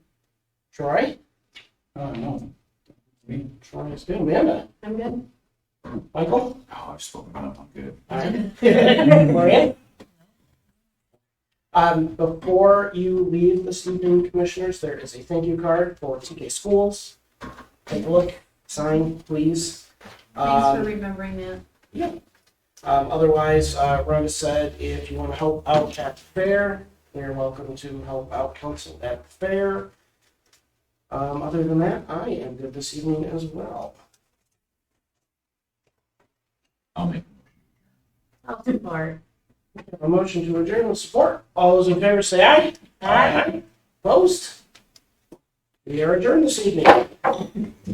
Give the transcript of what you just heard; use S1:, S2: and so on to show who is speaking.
S1: Troy?
S2: Oh, no.
S1: We, Troy is good. Amanda?
S3: I'm good.
S1: Michael?
S2: Oh, I've spoken up. I'm good.
S1: Maria? Um, before you leave the student commissioners, there is a thank you card for TK Schools. Take a look, sign, please.
S3: Thanks
S1: Um,
S3: for remembering that.
S1: Um, otherwise, uh, Rhonda said, if you want to help out at the fair, you're welcome to help out council at the fair. Um, other than that, I am good this evening as well.
S2: I'll make.
S3: I'll support.
S1: A motion to adjourn with support. All those in favor say aye. Opposed? We are adjourned this evening.